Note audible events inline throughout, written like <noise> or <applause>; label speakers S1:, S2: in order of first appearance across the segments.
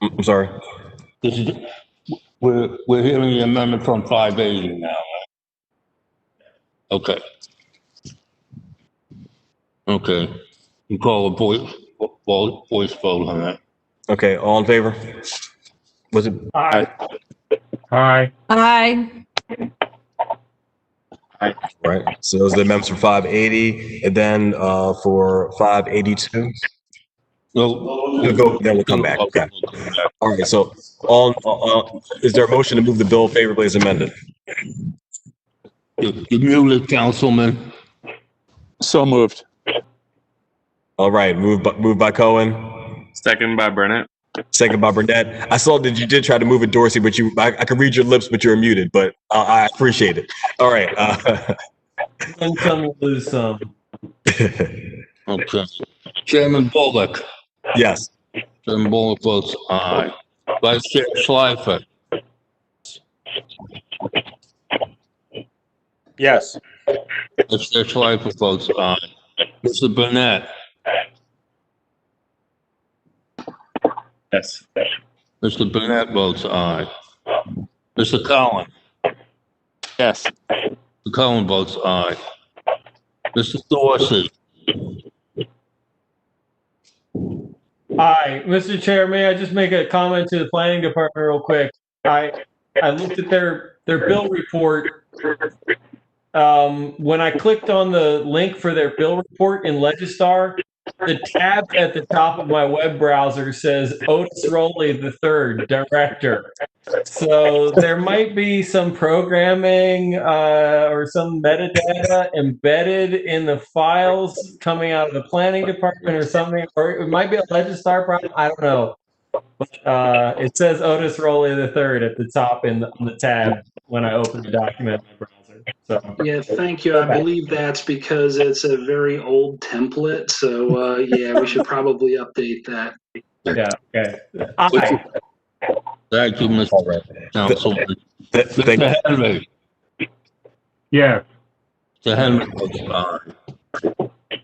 S1: I'm I'm sorry.
S2: This is, we're, we're hearing the amendment from 580 now, right? Okay. Okay, you call a voice, vo- voice vote on that.
S1: Okay, all in favor? Was it,
S3: Aye.
S4: Aye.
S1: right, so those are the amendments for 580, and then uh, for 582,
S2: No,
S1: we'll go, then we'll come back, okay. All right, so all, uh, uh, is there a motion to move the bill favorably as amended?
S2: You you muted, Councilman.
S5: So moved.
S1: All right, moved by, moved by Cohen,
S3: Second by Burnett.
S1: second by Burnett. I saw that you did try to move it, Dorsey, but you, I, I could read your lips, but you were muted, but uh, I appreciate it. All right. uh, <laughs>
S6: Don't tell me to lose some.
S2: Okay. Chairman Bullock,
S1: <laughs> Yes,
S2: Chairman Bullock votes aye. Vice Chair Schleifer,
S5: Yes.
S2: Vice Chair Schleifer votes aye. Mr. Burnett,
S3: Yes.
S2: Mr. Burnett votes aye. Mr. Collins?
S5: Yes.
S2: Mr. Cullen votes aye. Mr. Dorsey,
S6: Hi, Mr. Chair, may I just make a comment to the planning department real quick? I, I looked at their, their bill report. Um, when I clicked on the link for their bill report in Legistar, the tab at the top of my web browser says Otis Rowley the third director. So there might be some programming, uh, or some metadata embedded in the files coming out of the planning department or something, or it might be a Legistar problem. I don't know. But, uh, it says Otis Rowley the third at the top in the, on the tab when I open the document in my browser. So
S7: Yeah, thank you. I believe that's because it's a very old template. So, uh, yeah, we should probably update that.
S6: yeah, okay. I,
S2: thank you, Mr. Councilman.
S1: Th- thank
S2: Mr. Henry,
S3: Yes.
S2: Mr. Henry votes aye.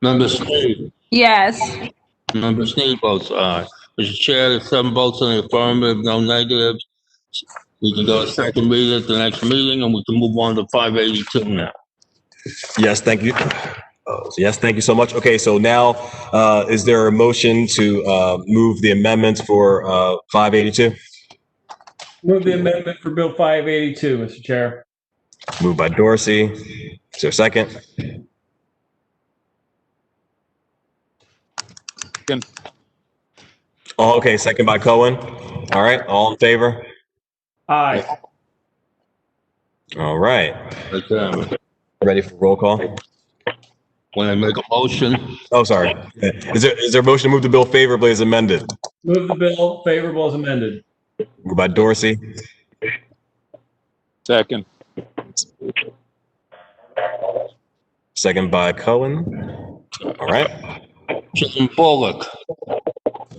S2: Member Sneed,
S4: Yes.
S2: Member Sneed votes aye. Mr. Chair, there's seven votes in the affirmative, no negatives. We can go to second reading at the next meeting, and we can move on to 582 now.
S1: Yes, thank you. Oh, so Yes, thank you so much. Okay, so now, uh, is there a motion to uh, move the amendments for uh, 582?
S6: move the amendment for Bill 582, Mr. Chair.
S1: Moved by Dorsey. Is there a second?
S5: Second.
S1: Oh, okay, second by Cohen. All right, all in favor?
S6: Aye.
S1: All right,
S2: Mr. Chairman,
S1: ready for roll call?
S2: When I make a motion,
S1: Oh, sorry. Is there, is there a motion to move the bill favorably as amended?
S6: Move the bill favorable as amended.
S1: Moved by Dorsey,
S5: Second.
S1: second by Cohen. All right,
S2: Chairman Bullock,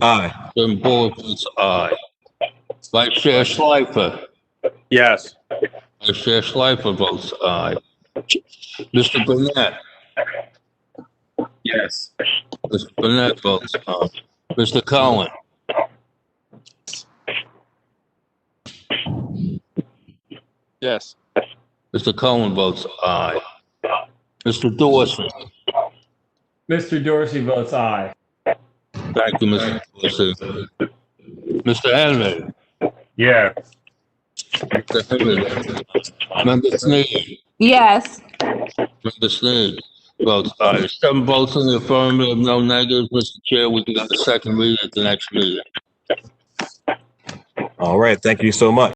S1: aye.
S2: Chairman Bullock votes aye. Vice Chair Schleifer,
S5: Yes.
S2: Vice Chair Schleifer votes aye. Mr. Burnett,
S3: Yes.
S2: Mr. Burnett votes aye. Mr. Collins,
S5: Yes.
S2: Mr. Collins votes aye. Mr. Dorsey,
S6: Mr. Dorsey votes aye.
S2: thank you, Mr. Dorsey. Mr. Henry,
S3: Yeah.
S2: Mr. Henry, Member Sneed,
S4: Yes.
S2: Member Sneed votes aye. Seven votes in the affirmative, no negatives. Mr. Chair, we can go to second reading at the next meeting.
S1: All right, thank you so much.